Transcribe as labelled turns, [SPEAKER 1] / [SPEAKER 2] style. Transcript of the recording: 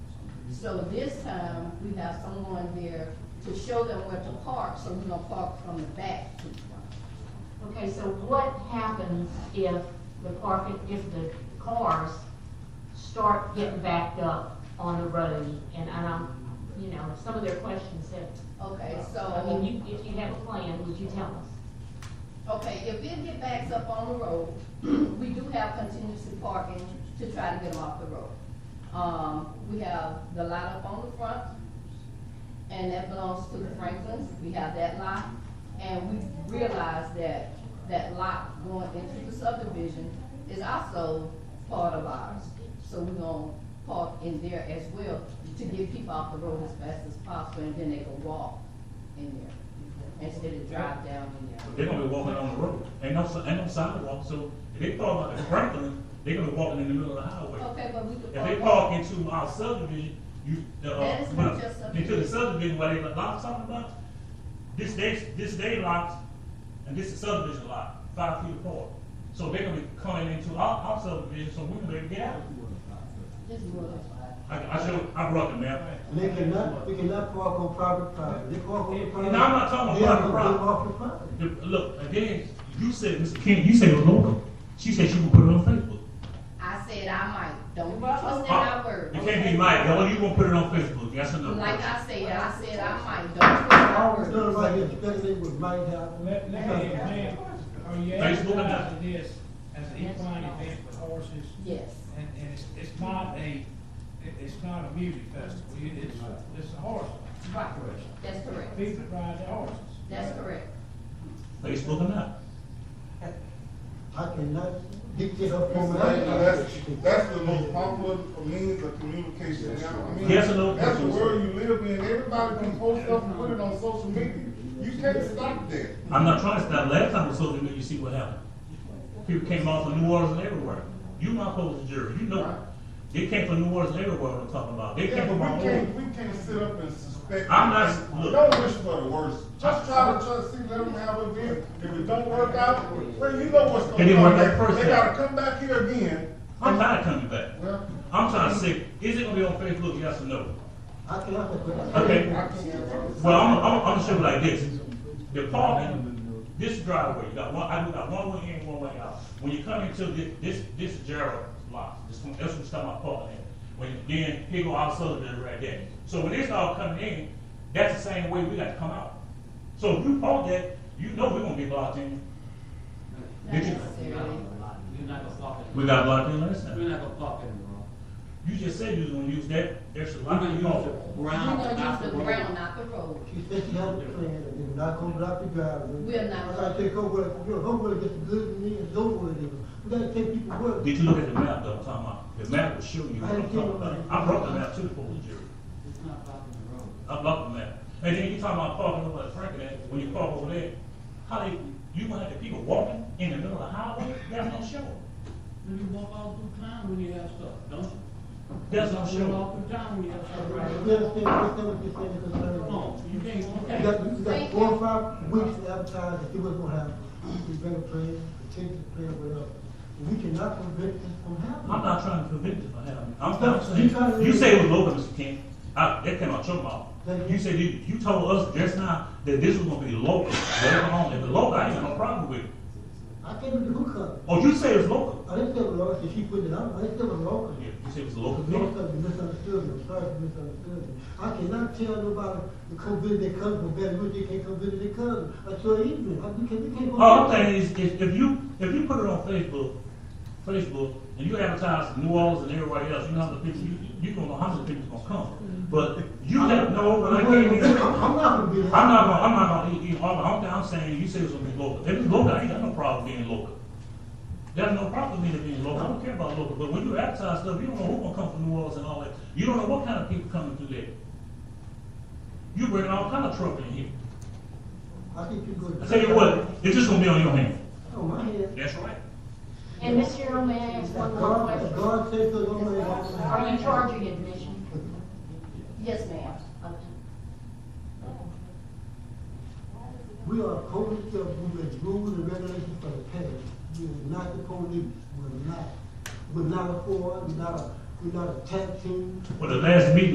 [SPEAKER 1] So this time, we have someone there to show them where to park, so we don't park from the back to the front.
[SPEAKER 2] Okay, so what happens if the parking, if the cars start getting backed up on the road? And I don't, you know, some of their questions have,
[SPEAKER 1] Okay,
[SPEAKER 2] I
[SPEAKER 1] so,
[SPEAKER 2] mean, you, if you have a plan, would you tell us?
[SPEAKER 1] okay, if it get backs up on the road, we do have contingency parking to try to get them off the road. Um, we have the lot up on the front, and that belongs to the Franklins, we have that lot. And we realize that that lot going into the subdivision is also part of ours. So we're gonna park in there as well to get people off the road as fast as possible, and then they can walk in there instead of drive down in there.
[SPEAKER 3] They're gonna be walking on the road. Ain't no, si- ain't no sidewalk, so if they park out at Franklin, they're gonna be walking in the middle of the highway.
[SPEAKER 1] Okay, but we could
[SPEAKER 3] If they
[SPEAKER 1] park.
[SPEAKER 3] park into our subdivision, you, the,
[SPEAKER 1] That
[SPEAKER 3] uh,
[SPEAKER 1] is not just
[SPEAKER 3] well,
[SPEAKER 1] subdivision.
[SPEAKER 3] into the subdivision where they, the lots talking about, this day, this day lots, and this is subdivision lot, five feet apart. So they're gonna be coming into our, our subdivision, so we can be able to get out.
[SPEAKER 1] Just move it.
[SPEAKER 3] I, I showed, I brought the map.
[SPEAKER 4] And they cannot, we cannot park on private property. They park on private.
[SPEAKER 3] No, I'm not talking
[SPEAKER 4] They
[SPEAKER 3] about
[SPEAKER 4] have to
[SPEAKER 3] private
[SPEAKER 4] live off the property.
[SPEAKER 3] The- Look, again, you said, Mr. King, you said Lenora, she said she would put it on Facebook.
[SPEAKER 1] I said I might, don't trust in
[SPEAKER 3] Huh?
[SPEAKER 1] my word.
[SPEAKER 3] You can't be mad, no, you gonna put it on Facebook, yes or no?
[SPEAKER 1] Like I said, I said I might, don't trust in my
[SPEAKER 4] None
[SPEAKER 1] word.
[SPEAKER 4] of our expectations would might have.
[SPEAKER 5] Let, let me explain, are you
[SPEAKER 3] Facebook and-
[SPEAKER 5] advertising this as an equine event for horses?
[SPEAKER 1] Yes.
[SPEAKER 5] And, and it's, it's not a, it- it's not a music festival, It- it's, it's a horse.
[SPEAKER 1] Right, that's correct.
[SPEAKER 5] People ride their horses.
[SPEAKER 1] That's correct.
[SPEAKER 3] Facebook or not?
[SPEAKER 4] I cannot dictate her form of
[SPEAKER 6] That's,
[SPEAKER 4] life.
[SPEAKER 6] that's the most popular means of communication now. I mean,
[SPEAKER 3] Yes or no?
[SPEAKER 6] That's the world you live in, everybody can post stuff and put it on social media. You can't stop that.
[SPEAKER 3] I'm not trying to stop, last time I was social media, you see what happened. People came out from New Orleans and everywhere. You my opposing jury, you know, it. they came from New Orleans and everywhere what I'm talking about, they
[SPEAKER 6] Yeah,
[SPEAKER 3] came
[SPEAKER 6] but
[SPEAKER 3] from all
[SPEAKER 6] we can't,
[SPEAKER 3] over.
[SPEAKER 6] we can't sit up and suspect.
[SPEAKER 3] I'm not- look.
[SPEAKER 6] Don't wish for the worst, just try to, try to see, let them have an event, if it don't work out, well, you know what's
[SPEAKER 3] It
[SPEAKER 6] gonna
[SPEAKER 3] didn't
[SPEAKER 6] come
[SPEAKER 3] work out
[SPEAKER 6] back.
[SPEAKER 3] first time.
[SPEAKER 6] They gotta come back here again.
[SPEAKER 3] I'm tired of coming back.
[SPEAKER 6] Well,
[SPEAKER 3] I'm trying to say, is it gonna be on Facebook, yes or no?
[SPEAKER 4] I cannot.
[SPEAKER 3] Okay.
[SPEAKER 6] I can't.
[SPEAKER 3] Well, I'm, I'm, I'm gonna show you like this. The parking, this driveway, you got one, I do got one way in, one way out. When you come into this, this, this Gerald lot, this one, that's what's talking about parking there. When, then here go our subdivision right there. So when this all coming in, that's the same way we got to come out. So if you park that, you know we're gonna be blocked in.
[SPEAKER 1] Not
[SPEAKER 3] Did you-
[SPEAKER 1] necessarily.
[SPEAKER 7] You're not gonna park
[SPEAKER 3] We
[SPEAKER 7] anymore.
[SPEAKER 3] got blocked in last
[SPEAKER 7] You're
[SPEAKER 3] time.
[SPEAKER 7] not gonna park anymore.
[SPEAKER 3] You just said you was gonna use that extra
[SPEAKER 7] I'm
[SPEAKER 3] lot.
[SPEAKER 7] gonna
[SPEAKER 3] you
[SPEAKER 7] use
[SPEAKER 3] know.
[SPEAKER 7] the
[SPEAKER 1] We're
[SPEAKER 7] ground, not
[SPEAKER 1] gonna
[SPEAKER 7] the
[SPEAKER 1] use the ground,
[SPEAKER 7] road.
[SPEAKER 1] not the road.
[SPEAKER 4] She said she had a plan and they're not gonna block the driveway.
[SPEAKER 1] We're not.
[SPEAKER 4] I take her word, you know, her word gets good to me and no word is. We gotta take people's word.
[SPEAKER 3] Did you look at the map though, I'm talking about? The map will show you what I'm talking about. I brought the map to the police jury.
[SPEAKER 7] It's not blocking the road.
[SPEAKER 3] I love the map. And then you talking about parking over at Franklin, when you park over there, how they, you gonna have the people walking in the middle of the highway, that's no show.
[SPEAKER 7] Then you walk all through town when you have stuff, don't you?
[SPEAKER 3] That's no
[SPEAKER 7] You
[SPEAKER 3] show.
[SPEAKER 7] walk through town when you have stuff,
[SPEAKER 4] You
[SPEAKER 7] right?
[SPEAKER 4] understand, understand what you're saying, because
[SPEAKER 7] Come on, you can't,
[SPEAKER 4] You
[SPEAKER 7] okay.
[SPEAKER 4] got, you got four or five weeks to advertise and see what's gonna happen. We better plan, continue to plan, whatever. We cannot prevent this from
[SPEAKER 3] I'm
[SPEAKER 4] happening.
[SPEAKER 3] not trying to prevent it from happening. I'm
[SPEAKER 4] Stop. You trying
[SPEAKER 3] trying
[SPEAKER 4] to-
[SPEAKER 3] you say it was local, Mr. King. I, that came out your mouth.
[SPEAKER 4] Thank you.
[SPEAKER 3] You said you, you told us just now that this was gonna be local, whatever on, if it's local, I ain't got no problem with it.
[SPEAKER 4] I can't do who cut.
[SPEAKER 3] Oh, you say it's local?
[SPEAKER 4] I didn't say it was local, she put it out, I didn't say it was local.
[SPEAKER 3] Yeah, you say it's local.
[SPEAKER 4] No, because you misunderstood me, I'm sorry if you misunderstood me. I cannot tell nobody to come visit their cousin, from Baton Rouge, they can't come visit their cousin, until evening, I, we can't, we can't go.
[SPEAKER 3] All Oh, I'm saying is, if, if you, if you put it on Facebook, Facebook, and you advertise to New Orleans and everybody else, you know how many people, you, you gonna know how many people's gonna come. But you let, no, when I
[SPEAKER 4] I'm
[SPEAKER 3] came here, I'm not
[SPEAKER 4] not gonna be there.
[SPEAKER 3] gonna, I'm not gonna eat, eat all, I'm, I'm saying, you say it's gonna be local. If it's local, I ain't got no problem being local. There's no problem with it being local, I don't care about local, but when you advertise stuff, you don't know who's gonna come from New Orleans and all that. You don't know what kind of people coming through there. You bringing all kind of trouble in here.
[SPEAKER 4] I think you go.
[SPEAKER 3] I tell you what, it's just gonna be on your hand.
[SPEAKER 4] Oh, my head.
[SPEAKER 3] That's right.
[SPEAKER 2] And Ms. Cheryl, may I ask one more
[SPEAKER 4] God,
[SPEAKER 2] question?
[SPEAKER 4] God says so, don't worry about it.
[SPEAKER 2] Are you charging admission?
[SPEAKER 1] Yes, ma'am.
[SPEAKER 2] Okay.
[SPEAKER 4] We are a police that with rules and regulations for the past. We are not the police, we're not. We're not a force, we're not a, we're not a tag team.
[SPEAKER 3] Well, the last meeting